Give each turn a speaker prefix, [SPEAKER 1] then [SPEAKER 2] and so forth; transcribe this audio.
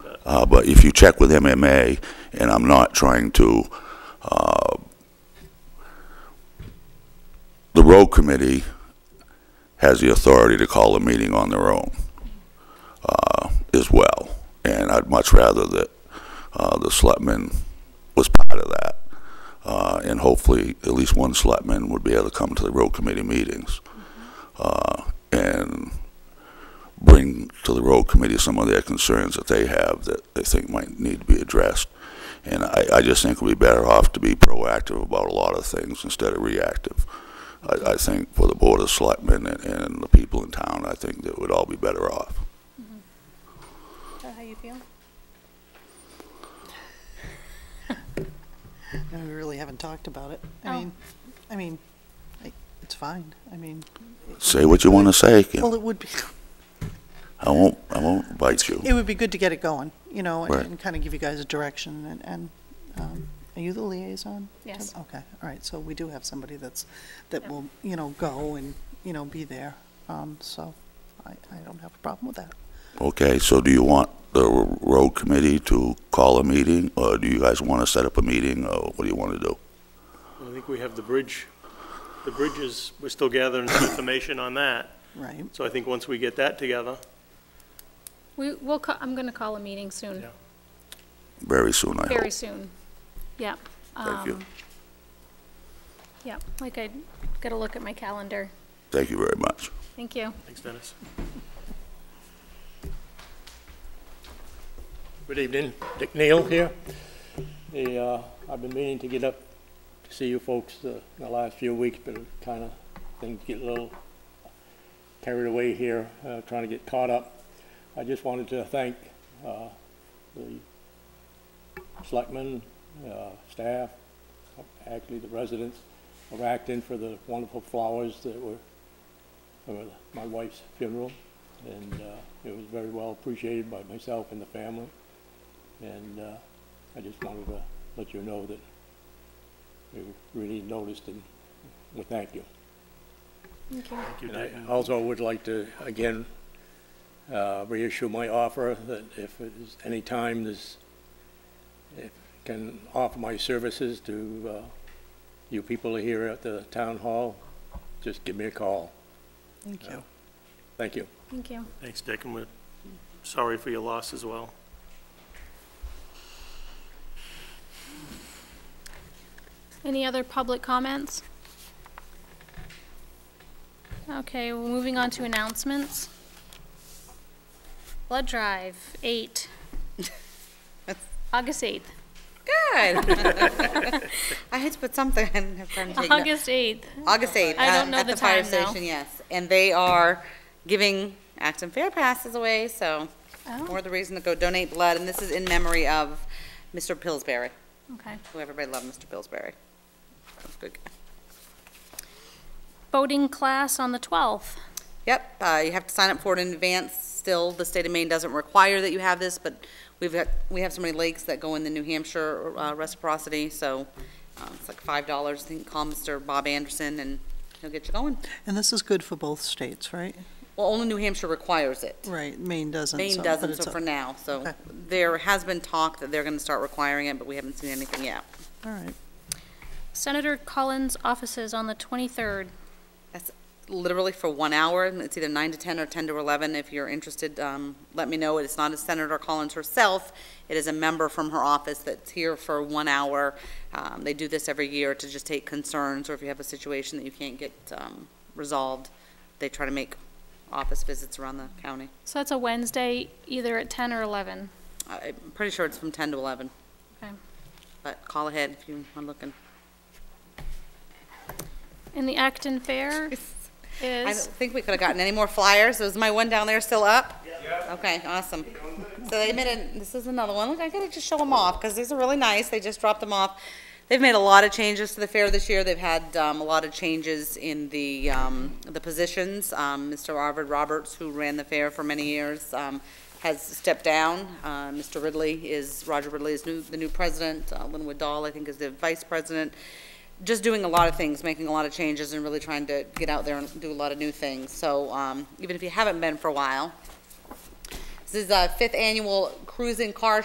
[SPEAKER 1] Uh, but if you check with MMA, and I'm not trying to, uh, the road committee has the authority to call a meeting on their own uh, as well. And I'd much rather that uh, the selectman was part of that. Uh, And hopefully, at least one selectman would be able to come to the road committee meetings uh, and bring to the road committee some of their concerns that they have that they think might need to be addressed. And I, I just think we'd be better off to be proactive about a lot of things instead of reactive. I, I think for the Board of Selectmen and, and the people in town, I think that we'd all be better off.
[SPEAKER 2] Is that how you feel?
[SPEAKER 3] No, we really haven't talked about it. I
[SPEAKER 2] Oh.
[SPEAKER 3] mean, I mean, like, it's fine. I mean,
[SPEAKER 1] Say what you want to say,
[SPEAKER 3] well,
[SPEAKER 1] Kim.
[SPEAKER 3] it would be,
[SPEAKER 1] I won't, I won't bite you.
[SPEAKER 3] it would be good to get it going, you know, and-
[SPEAKER 1] Right.
[SPEAKER 3] and kind of give you guys a direction and, and, um, are you the liaison? to-
[SPEAKER 2] Yes.
[SPEAKER 3] Okay, all right, so we do have somebody that's, that will, you know, go and, you know, be there. Um, so I, I don't have a problem with that.
[SPEAKER 1] Okay, so do you want the r- road committee to call a meeting, or do you guys want to set up a meeting, or what do you want to do?
[SPEAKER 4] I think we have the bridge, the bridges, we're still gathering some information on that.
[SPEAKER 3] Right,
[SPEAKER 4] So I think once we get that together,
[SPEAKER 2] We, we'll, ca- I'm going to call a meeting soon,
[SPEAKER 4] Yeah.
[SPEAKER 1] Very soon, I
[SPEAKER 2] very
[SPEAKER 1] hope.
[SPEAKER 2] soon. Yeah,
[SPEAKER 1] Thank you.
[SPEAKER 2] yeah, like I got to look at my calendar.
[SPEAKER 1] Thank you very much.
[SPEAKER 2] Thank you.
[SPEAKER 4] thanks Dennis. Good evening, Dick Neal here. The, uh, I've been meaning to get up to see you folks uh, the last few weeks, but kind of things get a little carried away here, uh, trying to get caught up. I just wanted to thank uh, the selectmen, uh, staff, actually the residents of Acton for the wonderful flowers that were for my wife's funeral, and uh, it was very well appreciated by myself and the family. And uh, I just wanted to let you know that we really noticed and we thank you.
[SPEAKER 2] Thank you.
[SPEAKER 4] And I Also would like to, again, uh, reissue my offer that if there's any time this, if can offer my services to uh, you people here at the town hall, just give me a call.
[SPEAKER 3] thank you.
[SPEAKER 4] Thank you.
[SPEAKER 2] Thank you.
[SPEAKER 5] Thanks, Dick, and we're sorry for your loss as well.
[SPEAKER 2] Any other public comments? Okay, well, moving on to announcements. Blood drive, eight. August eighth,
[SPEAKER 6] Good. I had to put something in. Have time to take notes.
[SPEAKER 2] August eighth.
[SPEAKER 6] August 8th.
[SPEAKER 2] I don't
[SPEAKER 6] um,
[SPEAKER 2] know
[SPEAKER 6] At
[SPEAKER 2] the
[SPEAKER 6] the fire
[SPEAKER 2] time, though.
[SPEAKER 6] station, yes. And they are giving Acton Fair passes away, so more
[SPEAKER 2] Oh,
[SPEAKER 6] the reason to go donate blood. And this is in memory of Mr. Pillsbury,
[SPEAKER 2] okay.
[SPEAKER 6] who everybody loved, Mr. Pillsbury. That was a good guy.
[SPEAKER 2] Boating class on the twelfth.
[SPEAKER 6] Yep, uh, you have to sign up for it in advance. Still, the state of Maine doesn't require that you have this, but we've got, we have so many lakes that go in the New Hampshire uh, reciprocity, so uh, it's like five dollars. I think call Mr. Bob Anderson and he'll get you going.
[SPEAKER 3] And this is good for both states, right?
[SPEAKER 6] Well, only New Hampshire requires it.
[SPEAKER 3] Right, Maine doesn't.
[SPEAKER 6] Maine
[SPEAKER 3] so- but
[SPEAKER 6] doesn't,
[SPEAKER 3] it's
[SPEAKER 6] so
[SPEAKER 3] a-
[SPEAKER 6] for now, so
[SPEAKER 3] Okay.
[SPEAKER 6] there has been talk that they're gonna start requiring it, but we haven't seen anything yet.
[SPEAKER 3] All right.
[SPEAKER 2] Senator Collins' offices on the twenty-third.
[SPEAKER 6] Literally for one hour, and it's either nine to ten or ten to eleven, if you're interested, um, let me know, it's not a Senator Collins herself, it is a member from her office that's here for one hour. Um, they do this every year to just take concerns, or if you have a situation that you can't get, um, resolved, they try to make office visits around the county.
[SPEAKER 2] So that's a Wednesday, either at ten or eleven.
[SPEAKER 6] I- I'm pretty sure it's from ten to eleven.
[SPEAKER 2] Okay.
[SPEAKER 6] But call ahead if you are looking.
[SPEAKER 2] And the Acton Fair
[SPEAKER 6] I
[SPEAKER 2] is,
[SPEAKER 6] don't think we could have gotten any more flyers. Is my one down there still up? Yeah. Okay, awesome. So they made a, this is another one. Look, I gotta just show them off, because these are really nice. They just dropped them off. They've made a lot of changes to the fair this year. They've had, um, a lot of changes in the, um, the positions. Um, Mr. Arvid Roberts, who ran the fair for many years, um, has stepped down. Uh, Mr. Ridley is, Roger Ridley is new, the new president. Uh, Linwood Dahl, I think, is the vice president just doing a lot of things, making a lot of changes, and really trying to get out there and do a lot of new things. So um, even if you haven't been for a while, This is a fifth annual cruising car